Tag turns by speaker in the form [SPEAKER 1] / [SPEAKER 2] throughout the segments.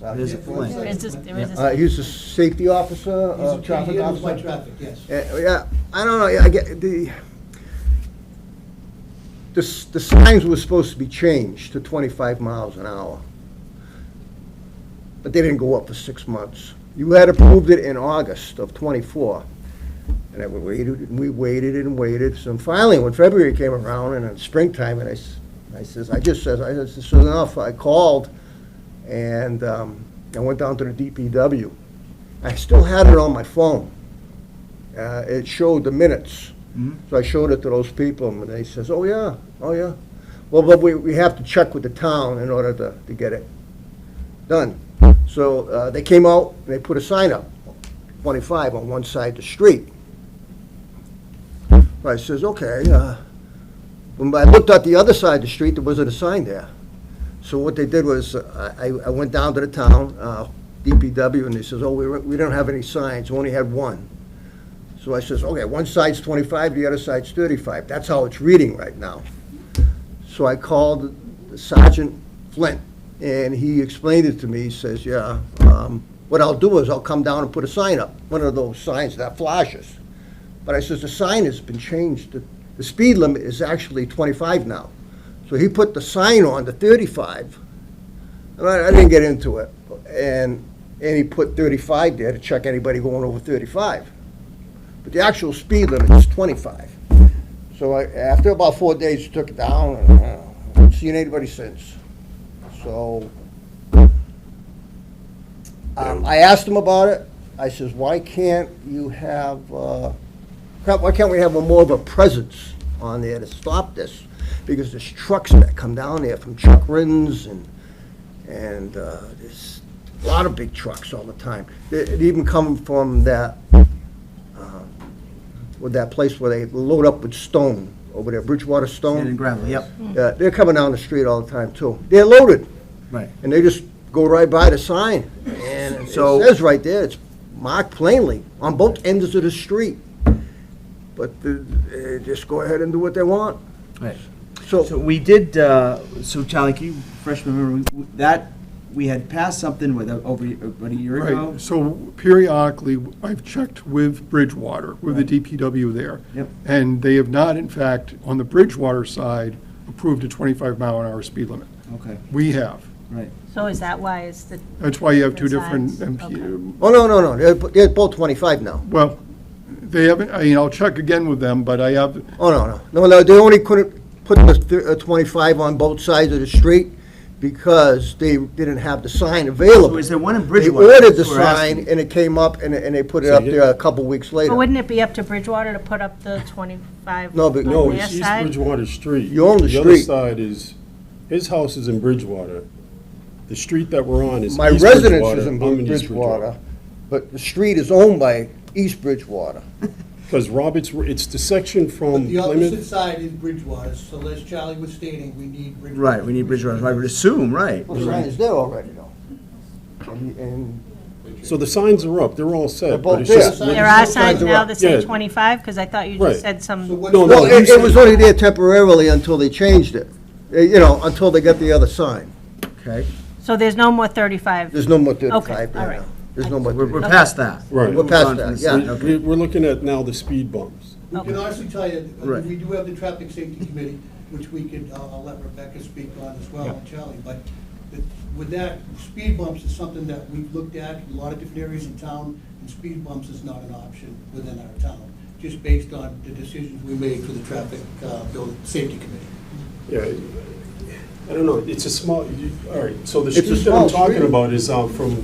[SPEAKER 1] There's a
[SPEAKER 2] Flint.
[SPEAKER 3] There is a- there is a-
[SPEAKER 1] Uh, he's a safety officer,
[SPEAKER 2] He's
[SPEAKER 1] uh,
[SPEAKER 2] a-
[SPEAKER 1] traffic
[SPEAKER 2] he handles my
[SPEAKER 1] officer.
[SPEAKER 2] traffic, yes.
[SPEAKER 1] Uh, Yeah, I don't know, yeah, I get, the, the, s- the signs were supposed to be changed to twenty-five miles an hour. But they didn't go up for six months. You had approved it in August of twenty-four. And I waited, and we waited and waited, so finally, when February came around, and in springtime, and I, s- I says, I just says, I says, this is enough, I called, and, um, I went down to the DPW. I still had it on my phone. Uh, it showed the minutes. So I showed it to those people, and they says, oh, yeah, oh, yeah. Well, but we, we have to check with the town in order to, to get it done. So, uh, they came out, and they put a sign up, twenty-five on one side of the street. So I says, okay, uh, when I looked at the other side of the street, there wasn't a sign there. So what they did was, uh, I, I went down to the town, uh, DPW, and they says, oh, we, we don't have any signs, we only had one. So I says, okay, one side's twenty-five, the other side's thirty-five, that's how it's reading right now. So I called Sergeant Flint, and he explained it to me, he says, yeah, um, what I'll do is I'll come down and put a sign up, one of those signs that flashes. But I says, the sign has been changed, the, the speed limit is actually twenty-five now. So he put the sign on to thirty-five, and I, I didn't get into it, and, and he put thirty-five there to check anybody going over thirty-five but the actual speed limit is 25. So I, after about four days, took it down, and uh, I haven't seen anybody since. So, um, I asked him about it, I says, why can't you have, uh, can't- why can't we have a more of a presence on there to stop this? Because there's trucks that come down there from Chuck Rins and, and uh, there's a lot of big trucks all the time. It it even come from that um, with that place where they load up with stone over there, Bridgewater
[SPEAKER 2] Sand and
[SPEAKER 1] Stone.
[SPEAKER 2] gravel, yep,
[SPEAKER 1] Yeah, they're coming down the street all the time too. They're loaded,
[SPEAKER 2] right.
[SPEAKER 1] and they just go right by the sign. And it
[SPEAKER 2] So-
[SPEAKER 1] says right there, it's marked plainly on both ends of the street. But the- they just go ahead and do what they want.
[SPEAKER 2] Right. So
[SPEAKER 1] So,
[SPEAKER 2] we did, uh, so Charlie, can you refresh my memory? We- That, we had passed something with, uh, over about a year ago?
[SPEAKER 4] Right, so periodically, I've checked with Bridgewater, with
[SPEAKER 2] Right.
[SPEAKER 4] the DPW there.
[SPEAKER 2] Yep.
[SPEAKER 4] And they have not, in fact, on the Bridgewater side, approved a 25 mile an hour speed limit.
[SPEAKER 2] Okay,
[SPEAKER 4] We have.
[SPEAKER 2] right.
[SPEAKER 3] So is that why it's the,
[SPEAKER 4] That's why you have two different,
[SPEAKER 3] Different signs,
[SPEAKER 4] MP
[SPEAKER 1] oh, no, no, no, they're, they're both 25 now.
[SPEAKER 4] well, they haven't, I mean, I'll check again with them, but I have,
[SPEAKER 1] Oh, no, no. No, no, they only couldn't put the thir- uh, 25 on both sides of the street because they didn't have the sign available.
[SPEAKER 2] So is there one in
[SPEAKER 1] They
[SPEAKER 2] Bridgewater?
[SPEAKER 1] ordered the
[SPEAKER 2] That's what we're asking.
[SPEAKER 1] sign, and it came up, and, and they put it
[SPEAKER 5] So
[SPEAKER 1] up
[SPEAKER 5] you-
[SPEAKER 1] there a couple weeks
[SPEAKER 3] but
[SPEAKER 1] later.
[SPEAKER 3] wouldn't it be up to Bridgewater to put up the 25
[SPEAKER 1] No,
[SPEAKER 3] on
[SPEAKER 1] but-
[SPEAKER 5] No,
[SPEAKER 3] their
[SPEAKER 5] it's East
[SPEAKER 3] side?
[SPEAKER 5] Bridgewater Street.
[SPEAKER 1] You own the
[SPEAKER 5] other
[SPEAKER 1] street.
[SPEAKER 5] side is, his house is in Bridgewater. The street that we're on is
[SPEAKER 1] My
[SPEAKER 5] East
[SPEAKER 1] residence
[SPEAKER 5] Bridgewater.
[SPEAKER 1] is in
[SPEAKER 5] I'm in East
[SPEAKER 1] Bridgewater, but the street is owned by East Bridgewater.
[SPEAKER 5] Because Roberts, it's the section from
[SPEAKER 6] The opposite
[SPEAKER 5] Plymouth.
[SPEAKER 6] side is Bridgewater, so as Charlie was stating, we need Bridgewater.
[SPEAKER 2] Right, we need Bridgewater, I would assume, right.
[SPEAKER 1] Well, the sign is there already, though. And, and
[SPEAKER 5] So the signs are up, they're all
[SPEAKER 1] They're
[SPEAKER 5] set,
[SPEAKER 1] both
[SPEAKER 5] but it's
[SPEAKER 1] there.
[SPEAKER 5] just.
[SPEAKER 6] There
[SPEAKER 3] There are
[SPEAKER 6] Signs
[SPEAKER 3] signs
[SPEAKER 1] are
[SPEAKER 3] now
[SPEAKER 1] up.
[SPEAKER 3] that say
[SPEAKER 5] Yeah.
[SPEAKER 3] 25, because I thought you
[SPEAKER 5] Right.
[SPEAKER 3] just said some.
[SPEAKER 6] So what's
[SPEAKER 5] No,
[SPEAKER 1] well,
[SPEAKER 5] no,
[SPEAKER 1] it,
[SPEAKER 5] you
[SPEAKER 1] it was only there temporarily until they changed it, Uh, you know, until they got the other sign.
[SPEAKER 2] Okay,
[SPEAKER 3] So there's no more 35.
[SPEAKER 1] There's no more
[SPEAKER 3] Okay,
[SPEAKER 1] thirty-five
[SPEAKER 3] all
[SPEAKER 1] there
[SPEAKER 3] right.
[SPEAKER 1] now. There's no more
[SPEAKER 2] we're, we're
[SPEAKER 1] 35.
[SPEAKER 2] past that.
[SPEAKER 5] Right.
[SPEAKER 2] We've
[SPEAKER 1] We're past
[SPEAKER 2] gone from
[SPEAKER 1] that,
[SPEAKER 2] the
[SPEAKER 1] yeah.
[SPEAKER 2] sign,
[SPEAKER 5] said-
[SPEAKER 2] Okay,
[SPEAKER 5] we- We're looking at now the speed bumps.
[SPEAKER 6] We
[SPEAKER 3] Okay.
[SPEAKER 6] can honestly tell you, uh,
[SPEAKER 2] Right.
[SPEAKER 6] we do have the traffic safety committee, which we could, I'll I'll let Rebecca speak on as well, and Charlie, but the- with that, speed bumps is something that we've looked at in a lot of different areas in town, and speed bumps is not an option within our town, just based on the decisions we made for the traffic, uh, building, safety committee.
[SPEAKER 5] Yeah, I don't know, it's a small, you- all right, so the
[SPEAKER 1] It's a
[SPEAKER 5] street that
[SPEAKER 1] small
[SPEAKER 5] I'm talking
[SPEAKER 1] street.
[SPEAKER 5] about is uh, from,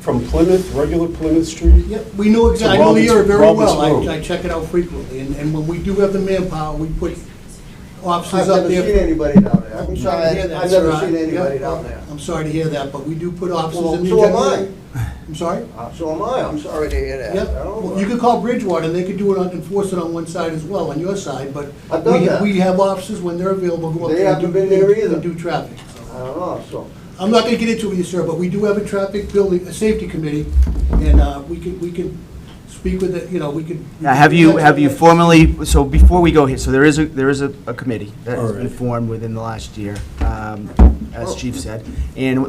[SPEAKER 5] from Plymouth, regular Plymouth Street.
[SPEAKER 6] Yep, we know
[SPEAKER 5] So
[SPEAKER 6] exactly, I know the area
[SPEAKER 5] Robert's-
[SPEAKER 6] very
[SPEAKER 5] Robert's
[SPEAKER 6] well,
[SPEAKER 5] Road.
[SPEAKER 6] I, I check it out frequently, and, and when we do have the manpower, we put
[SPEAKER 1] I've
[SPEAKER 6] officers up
[SPEAKER 1] never
[SPEAKER 6] there.
[SPEAKER 1] seen anybody down there. I'm
[SPEAKER 6] I'm
[SPEAKER 1] sorry,
[SPEAKER 6] sorry to hear that,
[SPEAKER 1] I've never
[SPEAKER 6] sir.
[SPEAKER 1] seen
[SPEAKER 6] I-
[SPEAKER 1] anybody
[SPEAKER 6] yeah,
[SPEAKER 1] down there.
[SPEAKER 6] I'm sorry to hear that, but we do put officers
[SPEAKER 1] Well,
[SPEAKER 6] in the.
[SPEAKER 1] so am
[SPEAKER 6] general- I'm sorry?
[SPEAKER 1] Uh, So am I, I'm sorry to hear that.
[SPEAKER 6] Yep,
[SPEAKER 1] I don't
[SPEAKER 6] Well,
[SPEAKER 1] know.
[SPEAKER 6] you could call Bridgewater, and they could do it on, enforce it on one side as well, on your side, but.
[SPEAKER 1] I've done
[SPEAKER 6] we-
[SPEAKER 1] that.
[SPEAKER 6] We have officers when they're available, go up
[SPEAKER 1] They
[SPEAKER 6] there. and
[SPEAKER 1] haven't
[SPEAKER 6] do-
[SPEAKER 1] been there
[SPEAKER 6] and
[SPEAKER 1] either.
[SPEAKER 6] Do traffic, so.
[SPEAKER 1] I don't know, so.
[SPEAKER 6] I'm not gonna get into it, sir, but we do have a traffic building, a safety committee, and, uh, we could, we could speak with it, you know, we could.
[SPEAKER 2] Now, have you, have you formally, so before we go here, so there is a, there is a a committee that has been
[SPEAKER 5] Alright.
[SPEAKER 2] formed within the last year, um, as Chief said. And